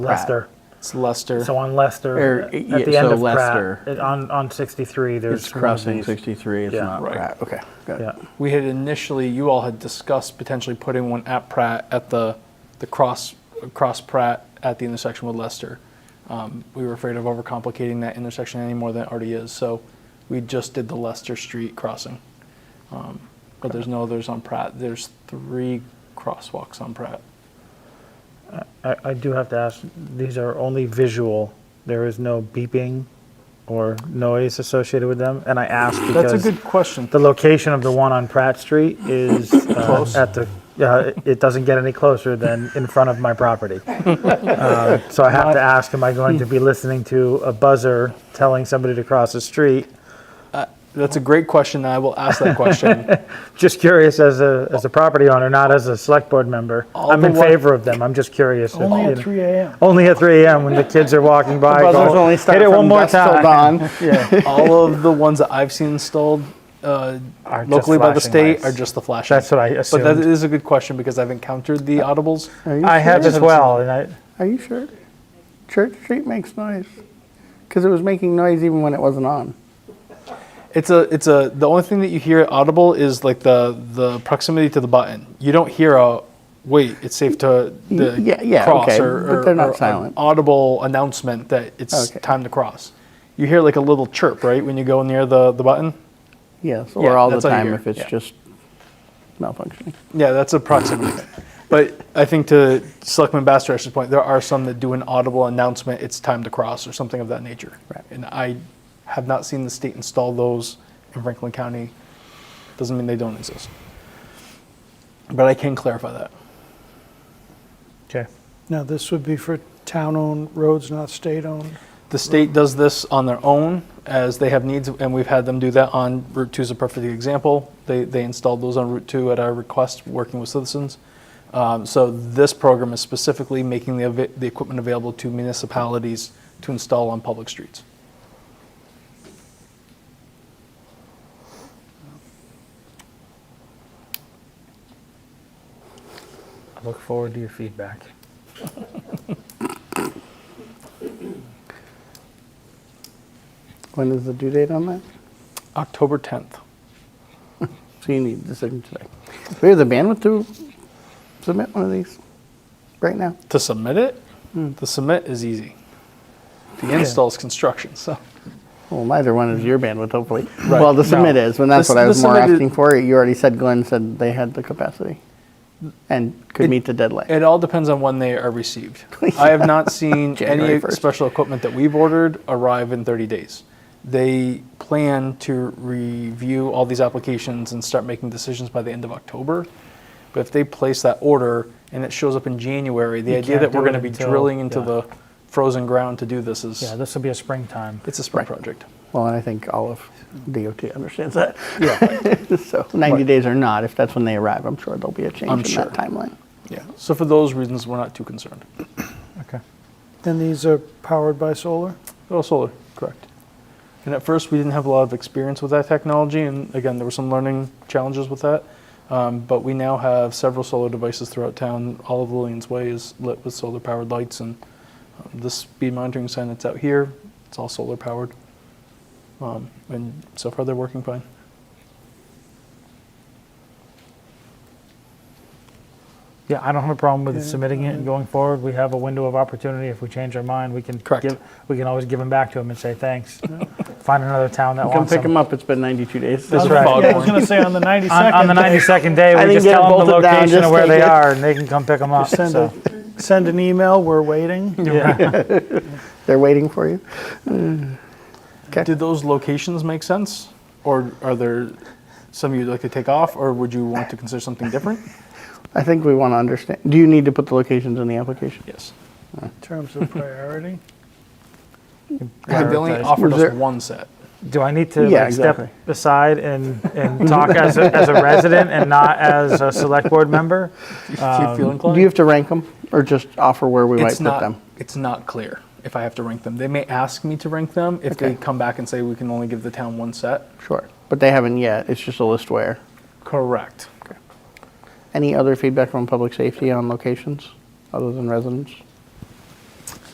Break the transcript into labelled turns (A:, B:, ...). A: Lester.
B: It's Lester.
A: So on Lester,
C: Er,
A: at
C: yeah,
A: the end
C: so
A: of
C: Lester.
A: Pratt, it- on, on 63, there's.
C: It's
A: one of
C: crossing
A: these-
C: 63, it's
A: Yeah.
C: not
B: Right.
C: Pratt. Okay, got it.
A: Yeah,
B: we had initially, you all had discussed potentially putting one at Pratt at the, the cross, cross Pratt at the intersection with Lester. Um, we were afraid of overcomplicating that intersection any more than it already is, so we just did the Lester Street crossing. Um, But there's no others on Pratt. There's three crosswalks on Pratt.
A: I, I do have to ask, these are only visual, there is no beeping or noise associated with them? And I ask
B: That's a
A: because
B: good question.
A: the location of the one on Pratt Street is uh, at the, yeah, it doesn't get any closer than in front of my property. Uh, So I have to ask, am I going to be listening to a buzzer telling somebody to cross the street?
B: That's a great question. and I will ask that question.
A: Just curious as a, as a property owner, not as a select board member.
B: All
A: I'm
B: the
A: in
B: wa-
A: favor of them, I'm just curious. if,
D: Only
A: you
D: at
A: know-
D: 3 a.m.
A: Only at 3 AM when the kids are walking by.
B: buzzers
A: go,
C: only start
A: Hit it
C: from
A: one more
C: dusk till
A: time.
C: dawn.
A: Yeah,
B: All of the ones that I've seen installed uh,
A: Are just
B: locally by the
A: flashing
B: state
A: lights.
B: are just the flashing.
A: That's what I
B: But that
A: assumed.
B: is a good question because I've encountered the audibles.
C: Are you
A: I have
C: sure?
A: as well, and I,
C: Are you sure? Church Street makes noise. Because it was making noise even when it wasn't on.
B: It's a it's a the only thing that you hear at audible is like the the proximity to the button. You don't hear a wait. It's safe to the
C: Y- yeah, yeah,
B: cross
C: okay,
B: or,
C: but
B: or-
C: they're not
B: or an
C: silent.
B: audible announcement that it's
C: Okay.
B: time to cross. You hear like a little chirp right when you go near the the button.
C: Yes,
B: Yeah,
C: or all the
B: that's all you
C: time
B: hear,
C: if it's
B: yeah.
C: just malfunctioning.
B: Yeah, that's a proximity. but I think to Selectman Bastarash's point, there are some that do an audible announcement, it's time to cross or something of that nature.
C: Right.
B: And I have not seen the state install those in Franklin County. Doesn't mean they don't exist. But I can clarify that.
A: okay.
D: Now, this would be for town-owned roads, not state-owned.
B: The state does this on their own as they have needs, and we've had them do that on Route 2 is a perfect example. They, they installed those on Route 2 at our request, working with citizens. Um, So this program is specifically making the, ava- the equipment available to municipalities to install on public streets.
A: Look forward to your feedback.
C: When is the due date on that?
B: October 10th.
C: So you need a decision today. Do we have the bandwidth to submit one of these right now?
B: To submit it, the submit is easy. The install is construction, so.
C: Well, neither one is your bandwidth, hopefully. Well, the submit
A: No.
C: is, and that's
B: The
C: what I
B: s-
C: was
B: the
C: more
B: submit is-
C: asking for. You already said Glenn said they had the capacity and
B: It-
C: could meet the deadline.
B: It all depends on when they are received. I have not seen any
C: January 1st.
B: special equipment that we've ordered arrive in 30 days. They plan to review all these applications and start making decisions by the end of October. But if they place that order and it shows up in January, the
A: You
B: idea
A: can't
B: that we're
A: do it
B: going to be
A: until-
B: drilling into
A: yeah.
B: the frozen ground to do this is
A: Yeah, this will be a springtime.
B: it's a spring project.
C: Well, and I think all of DOT understands that.
B: Yeah,
C: So 90
B: Right.
C: days or not, if that's when they arrive, I'm sure there'll be a change
B: I'm
C: in
B: sure.
C: that timeline.
B: yeah. So for those reasons, we're not too concerned.
A: Okay.
D: And these are powered by solar?
B: Oh, solar, correct. And at first, we didn't have a lot of experience with that technology, and again, there were some learning challenges with that. Um, but we now have several solar devices throughout town. All of Lillian's Way is lit with solar-powered lights, and um, this speed monitoring sign that's out here, it's all solar-powered. Um, and so far, they're working fine.
A: Yeah, I don't have a problem with
D: Yeah. uh,
A: submitting it and going forward. We have a window of opportunity. If we change our mind, we can.
B: Correct.
A: give- We can always give them back to them and say, thanks. Find another town that
C: Come
A: wants
C: pick them
A: them.
C: up, it's been 92 days.
B: There's
A: right.
B: a fog
D: Yeah, I was
B: horn.
D: going to say on the 92nd.
A: On, on the
D: day,
A: ninety-second day,
C: I
A: we
C: didn't
A: just
C: get
A: tell them the
C: bolted down,
A: location of
C: just
A: where
C: take
A: they
C: it.
A: are and they can come pick them up.
D: Send
A: so,
D: a, send an email, we're waiting.
A: yeah.
C: They're waiting for you.
B: Did those locations make sense, or are there some you'd like to take off, or would you want to consider something different?
C: I think we want to understand. Do you need to put the locations in the application?
B: Yes.
D: In terms of priority,
B: They only
A: Prioritize.
B: offered
C: Was there-
B: us one set.
A: Do I need to
C: Yeah,
A: like, step
C: exactly.
A: aside and, and talk as a, as a resident and not as a select board member?
B: Do you feel inclined?
C: Do you have to rank them or just offer where we might
B: it's
C: put
B: not,
C: them?
B: It's not clear if I have to rank them. They may ask me to rank them if they
C: Okay.
B: come back and say we can only give the town one set.
C: Sure. But they haven't yet. It's just a list where.
B: Correct.
C: Any other feedback from public safety on locations other than residents?